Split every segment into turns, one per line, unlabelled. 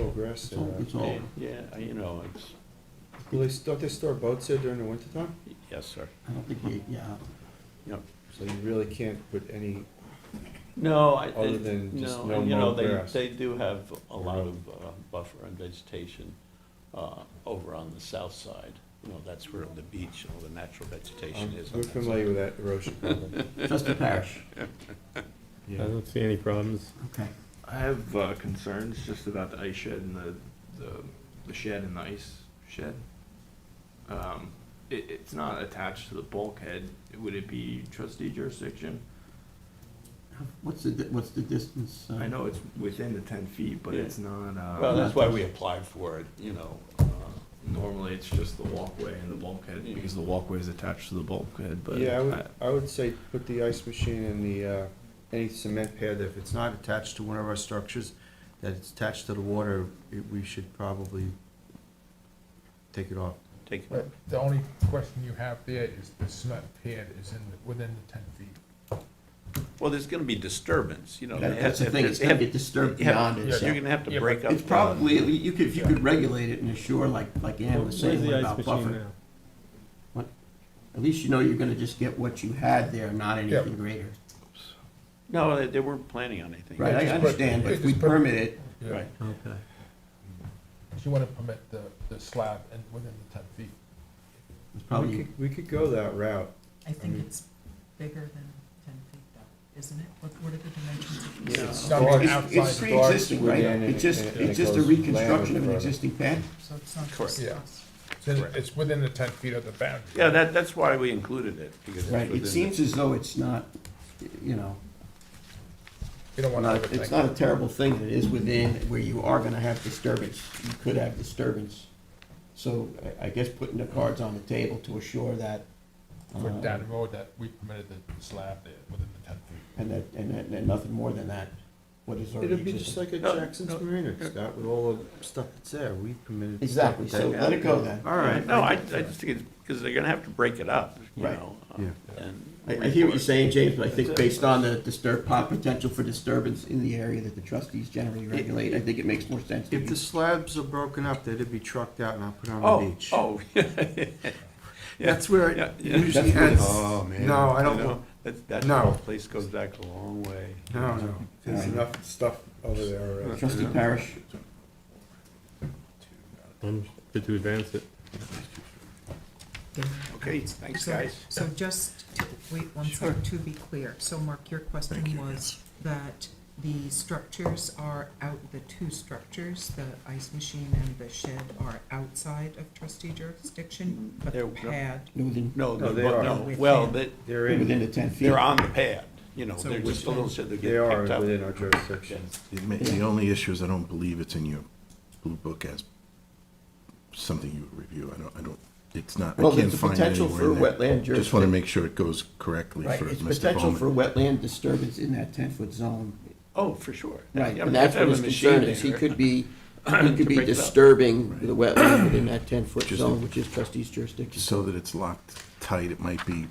all grass
It's
there.
all, it's all,
Yeah, I- you know, it's,
Will they, don't they store boats there during the wintertime?
yes, sir.
I don't think you, yeah,
Yep.
So you really can't put any,
No, I,
Other
they-
than just
no,
no
and, you know,
mowed
they,
grass.
they do have a lot
Or no-
of uh, buffer and vegetation uh, over on the south side. You know, that's where the beach, all the natural vegetation
um,
is. on
we're
that side.
familiar with that erosion problem.
just a parish,
I
Yeah.
don't see any problems.
okay.
I have uh, concerns just about the ice shed and the, the, the shed and the ice shed. Um, it, it's not attached to the bulkhead. Would it be trustee jurisdiction?
What's the, di- what's the distance? uh,
I know it's within the ten feet, but it's not,
Well,
uh,
that's why we applied for it, you know. uh,
normally it's just the walkway and the bulkhead, because the walkway is attached to the bulkhead, but.
Yeah, I
I-
would, I would say put the ice machine in the, uh, any cement pad, that if it's not attached to one of our structures, that it's attached to the water, it- we should probably take it off.
Take,
But the only question you have there is the cement pad is in, the- within the ten feet.
well, there's gonna be disturbance, you know.
That-
they
that's the
have-
thing,
they
it's gonna
have-
get disturbed
you have-
beyond itself.
You're gonna have
Yeah,
to
but
break up.
It's
the-
probably, you could, if you could regulate it and assure, like, like Ann was
Where's
saying
the ice
about
machine
buffer.
now?
At least you know you're gonna just get what you had there, not anything
Yeah.
greater.
No, they, they weren't planning on anything.
Right, I
just put-
understand, but
yeah,
if we
just put-
permit it,
Right.
Okay.
Because you want to permit the, the slab and within the ten feet.
it's
We
probably,
could, we could go that route.
I think
Mm.
mean-
it's bigger than ten feet though, isn't it? What, what are the dimensions of the
Yeah.
slab?
Not
Well,
even
it's-
it's, it's
outside, the-
pre-existing, right?
Within and
It's just,
it- and
it's
it
just a
goes land
reconstruction of an
further.
existing pad?
So it's not
Correct.
just
Yeah.
us.
it's in- it's within the ten feet of the boundary.
Yeah, that, that's why we included it, because it's
Right,
within
it
the-
seems as though it's not, you know,
You don't want to.
not, it's not a terrible thing, that it is within where you are gonna have disturbance, you could have disturbance. So I, I guess putting the cards on the table to assure that.
For
uh,
down the road that we permitted the slab there within the ten feet.
And that, and that, and nothing more than that, what is already
It'll be just
existing.
like at
No,
Jackson's Marina, Scott, with all the stuff that's there, we permitted. stuff
Exactly,
that's
so let it go then.
All right.
No, I, I just think it's, because they're gonna have to break it up, you
Right.
know. uh,
Yeah.
and
I, I hear what
report.
you're saying, James, but I think
That's it.
based on the disturb, pot- potential for disturbance in the area that the trustees generally regulate, I think it makes more sense to
If the
you.
slabs are broken up, they'd be trucked out and I'll put on the
Oh,
beach.
oh.
That's where
Yeah,
it
yeah.
usually
That's where
ends.
the-
Oh, man.
No, I
You
don't,
know,
no,
That, that
No.
whole place goes back a long way.
no, there's
Alright.
enough stuff over there uh, already.
Trustee Parish,
I'm good to advance it.
Okay, thanks,
So-
guys.
So just, to- wait one second, to be clear, so Mark, your question was that the structures are out, the two structures, the ice machine and the shed are outside of trustee jurisdiction, but
They're-
the pad,
within,
No,
No,
no,
they are.
no, well, they,
They're
within
in,
the ten feet.
they're on the pad, you know,
So
they're just a
which-
little, so they're
they
getting
are
picked up.
within our jurisdiction.
It may- The only issue is I don't believe it's in your blue book as something you would review. I don't, I don't, it's not, I
Well,
can't
there's a
find it
potential
anywhere in
for
there.
wetland
Just want to
jurisdic-
make sure it goes correctly
Right,
for
it's
Mr.
potential for
Bowman.
wetland disturbance in that ten-foot zone.
Oh, for sure.
Right,
Yeah,
and
if
that's
I
what
have
his
a machine
concern is, he
there-
could be, he
To
could be
break it up.
disturbing the wetland within that ten-foot
Just-
zone, which is trustees jurisdiction.
So that it's locked tight, it might be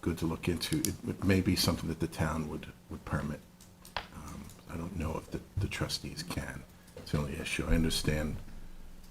good to look into. It- It may be something that the town would, would permit. Um, I don't know if the the trustees can. It's the only issue. I understand.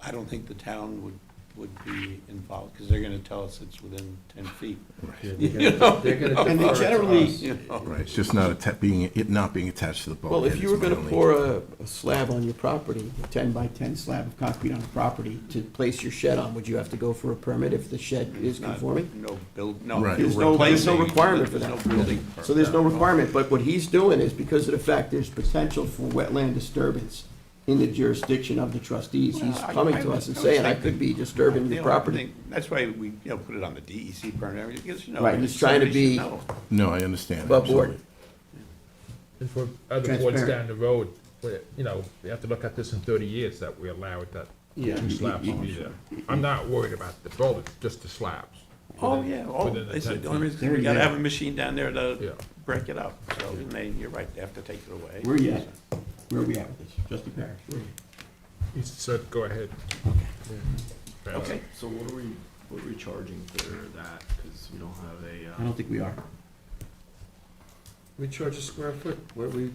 I don't think the town would, would be involved, because they're gonna tell us it's within ten feet.
Yeah,
You
they're
know,
gonna- they're gonna
And they
defer to
generally-
us.
You know,
Right, it's just not atta- being, it not being attached to the bulkhead.
Well, if you
is
were
my
gonna
only-
pour a, a slab on your property, a ten by ten slab of concrete on the property to place your shed on, would you have to go for a permit if the shed is
not-
conforming?
No build, no.
Right.
you're
There's no, there's no
replacing-
requirement for that.
There's no building.
So there's no
permit.
requirement, but what he's doing is because of the fact there's potential for wetland disturbance in the jurisdiction of the trustees, he's
Well, I-
coming
I
to
would-
us and
I would
saying, I
think
could be
that-
disturbing
you know,
your
I
property.
think That's why we, you know, put it on the DEC permit, everything, because, you know.
Right, he's trying to
somebody should
be-
know.
No, I understand.
Above board.
absolutely.
And for other boards
Transparent.
down the road, where, you know, they have to look at this in thirty years that we allow it that
Yeah,
two slabs will be there. I'm not worried about the buildings, just the slabs.
Oh,
Within-
yeah, oh,
within the
they
10
said, the only
feet.
reason, we
They're
gotta
there.
have a machine down there
Yeah.
to break it up, so, and they, you're right, they have to take it away.
Where you at? Where are we at with this? Trustee Parrish, where are you?
He said, go ahead. Yeah.
Okay,
So what are we, what are we charging for that? Because we don't have a, uh.
I don't think we are.
We charge a square foot, what we